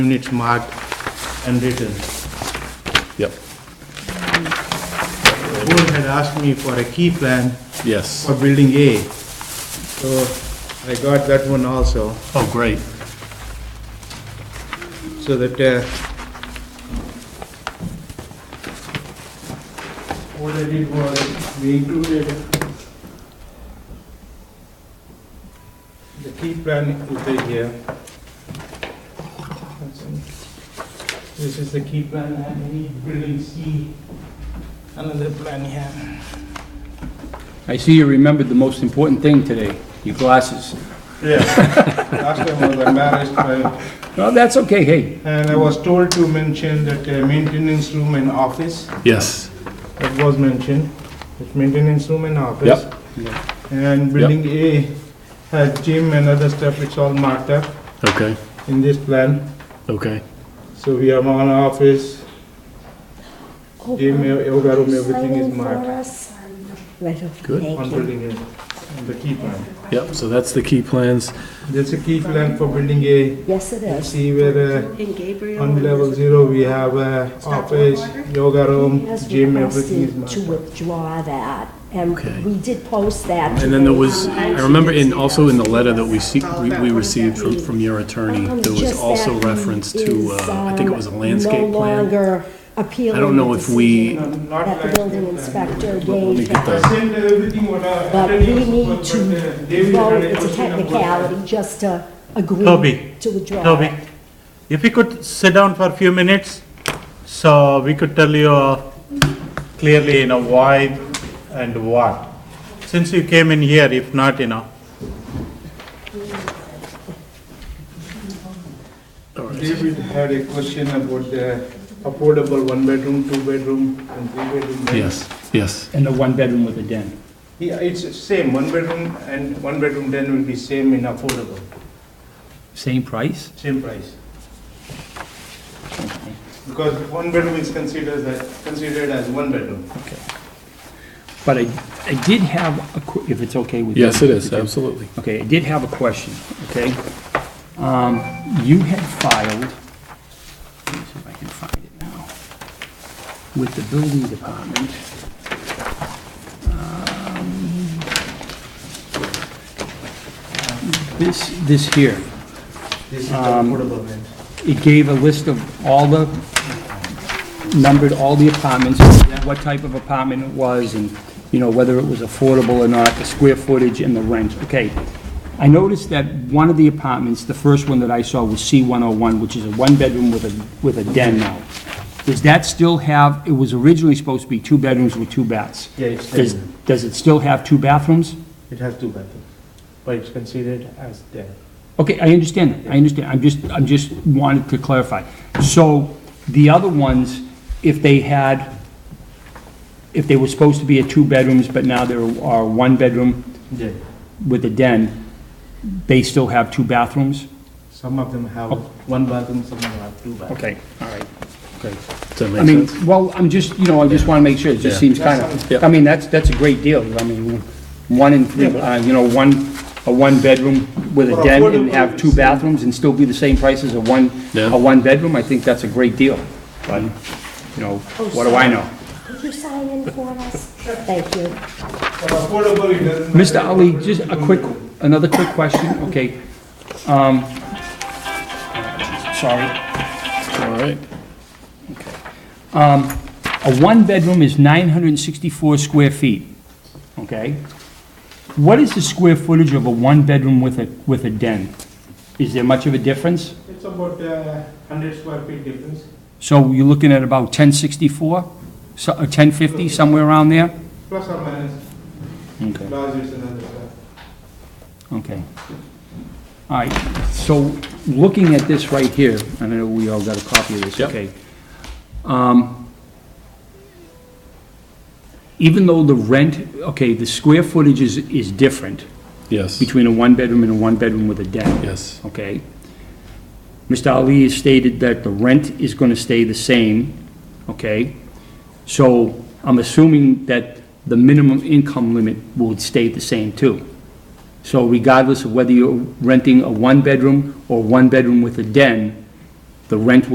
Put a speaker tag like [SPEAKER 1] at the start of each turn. [SPEAKER 1] units marked and written.
[SPEAKER 2] Yep,
[SPEAKER 1] The board had asked me for a key plan
[SPEAKER 2] yes.
[SPEAKER 1] for building A, so I got that one also,
[SPEAKER 2] Oh, great.
[SPEAKER 1] so that, uh, what I did was, we included the key plan is right here. This is the key plan, and we building C, another plan here.
[SPEAKER 3] I see you remembered the most important thing today, your glasses.
[SPEAKER 1] Yeah, last time I was embarrassed, by-
[SPEAKER 3] No, that's okay, hey,
[SPEAKER 1] and I was told to mention that uh, maintenance room and office,
[SPEAKER 2] Yes,
[SPEAKER 1] that was mentioned, it's maintenance room and office.
[SPEAKER 2] Yep.
[SPEAKER 1] And building A has gym and other stuff, it's all marked up
[SPEAKER 2] okay,
[SPEAKER 1] in this plan,
[SPEAKER 2] okay.
[SPEAKER 1] so we have one office, gym, e,
[SPEAKER 4] Open
[SPEAKER 1] yoga room, everything
[SPEAKER 4] signing
[SPEAKER 1] is
[SPEAKER 4] for
[SPEAKER 1] marked
[SPEAKER 4] us. Right,
[SPEAKER 2] Good.
[SPEAKER 4] thank
[SPEAKER 1] on
[SPEAKER 4] you.
[SPEAKER 1] building A, on the key plan.
[SPEAKER 2] Yep, so that's the key plans.
[SPEAKER 1] There's a key plan for building A,
[SPEAKER 4] Yes, it is.
[SPEAKER 1] see where, uh,
[SPEAKER 5] And Gabriel.
[SPEAKER 1] on level zero, we have uh, office, yoga room,
[SPEAKER 4] Has
[SPEAKER 1] gym, everything is
[SPEAKER 4] requested
[SPEAKER 1] marked
[SPEAKER 4] to
[SPEAKER 1] up.
[SPEAKER 4] withdraw that, and
[SPEAKER 2] Okay.
[SPEAKER 4] we did post that.
[SPEAKER 2] And then there was, I remember in, also in the letter that we see, we we received from, from your attorney,
[SPEAKER 4] Um,
[SPEAKER 2] there was
[SPEAKER 4] just
[SPEAKER 2] also
[SPEAKER 4] that
[SPEAKER 2] reference
[SPEAKER 4] is,
[SPEAKER 2] to, uh, I think it was a
[SPEAKER 4] um,
[SPEAKER 2] landscape
[SPEAKER 4] No
[SPEAKER 2] plan.
[SPEAKER 4] longer appealing.
[SPEAKER 2] I don't know
[SPEAKER 4] the
[SPEAKER 2] if we-
[SPEAKER 1] No,
[SPEAKER 4] decision
[SPEAKER 1] not
[SPEAKER 4] That the building
[SPEAKER 1] landscape plan.
[SPEAKER 4] inspector
[SPEAKER 2] let me
[SPEAKER 4] gave
[SPEAKER 2] get
[SPEAKER 1] I
[SPEAKER 2] that.
[SPEAKER 4] that.
[SPEAKER 1] sent uh, everything what I.
[SPEAKER 4] But
[SPEAKER 1] I
[SPEAKER 4] we
[SPEAKER 1] did,
[SPEAKER 4] need
[SPEAKER 1] but,
[SPEAKER 4] to,
[SPEAKER 1] uh, David
[SPEAKER 4] well,
[SPEAKER 1] had a
[SPEAKER 4] it's a
[SPEAKER 1] question about uh, that.
[SPEAKER 4] technicality, just to agree
[SPEAKER 6] Toby,
[SPEAKER 4] to withdraw.
[SPEAKER 6] Toby,
[SPEAKER 4] it.
[SPEAKER 6] if you could sit down for a few minutes, so we could tell you uh, clearly, you know, why and what. Since you came in here, if not, you know,
[SPEAKER 2] All right.
[SPEAKER 1] David had a question about the affordable one bedroom, two bedroom and three bedroom. right?
[SPEAKER 2] Yes, yes,
[SPEAKER 3] and the one bedroom with a den.
[SPEAKER 1] Yeah, it's same, one bedroom and one bedroom then will be same in affordable,
[SPEAKER 3] Same price?
[SPEAKER 1] same price. Because one bedroom is considered as, considered as one bedroom.
[SPEAKER 3] Okay. But I, I did have a, que- if it's okay with you.
[SPEAKER 2] yes, it is,
[SPEAKER 3] Mr. Chair.
[SPEAKER 2] absolutely.
[SPEAKER 3] Okay, I did have a question, okay? Um, you had filed, let me see if I can find it now, with the building department. Um, um, This, this here,
[SPEAKER 1] This is the affordable rent.
[SPEAKER 3] it gave a list of all the, numbered all the apartments, what type of apartment it was, and, you know, whether it was affordable or not, the square footage and the rent. Okay. I noticed that one of the apartments, the first one that I saw was C-101, which is a one-bedroom with a, with a den now. Does that still have, it was originally supposed to be two bedrooms with two baths.
[SPEAKER 1] Yeah, it's
[SPEAKER 3] Does,
[SPEAKER 1] ten.
[SPEAKER 3] does it still have two bathrooms?
[SPEAKER 1] It has two bathrooms, but it's considered as there.
[SPEAKER 3] Okay, I understand, that. I understand, I'm just, I'm just wanted to clarify. So, the other ones, if they had, if they were supposed to be a two bedrooms, but now there are one bedroom
[SPEAKER 1] Yeah.
[SPEAKER 3] with a den, they still have two bathrooms?
[SPEAKER 1] Some of them have one bathroom, some of them have two bathrooms.
[SPEAKER 3] Okay, all right, okay.
[SPEAKER 2] Does that
[SPEAKER 3] I
[SPEAKER 2] make
[SPEAKER 3] mean,
[SPEAKER 2] sense?
[SPEAKER 3] well, I'm just, you know, I just wanna make sure, it just
[SPEAKER 2] Yeah.
[SPEAKER 3] seems kinda,
[SPEAKER 2] Yeah.
[SPEAKER 3] I mean, that's, that's a great deal, I mean, one in three, uh, you know, one, a one-bedroom with a
[SPEAKER 1] For
[SPEAKER 3] den and
[SPEAKER 1] affordable,
[SPEAKER 3] have two
[SPEAKER 1] it's-
[SPEAKER 3] bathrooms and still be the same price as a one,
[SPEAKER 2] Yeah.
[SPEAKER 3] a one-bedroom, I think that's a great deal. But, you know,
[SPEAKER 4] Oh,
[SPEAKER 3] what do I know?
[SPEAKER 4] Could you sign in for us? Thank you.
[SPEAKER 1] For affordable, it doesn't. matter.
[SPEAKER 3] Mr. Ali, just a quick, another quick question, okay? Um, Sorry.
[SPEAKER 2] All right,
[SPEAKER 3] Um, A one-bedroom is 964 square feet, okay? What is the square footage of a one-bedroom with a, with a den? Is there much of a difference?
[SPEAKER 1] It's about uh, 100 square feet difference.
[SPEAKER 3] So you're looking at about 1064, so- or 1050, somewhere around there?
[SPEAKER 1] Plus or minus,
[SPEAKER 3] Okay.
[SPEAKER 1] large is another stuff.
[SPEAKER 3] Okay. All right, so looking at this right here, I know we all got a copy of this,
[SPEAKER 2] Yep.
[SPEAKER 3] okay. Um, Even though the rent, okay, the square footage is, is different
[SPEAKER 2] yes,
[SPEAKER 3] between a one-bedroom and a one-bedroom with a den,
[SPEAKER 2] yes,
[SPEAKER 3] okay? Mr. Ali has stated that the rent is gonna stay the same, okay? So I'm assuming that the minimum income limit will stay the same too. So regardless of whether you're renting a one-bedroom or one-bedroom with a den, the rent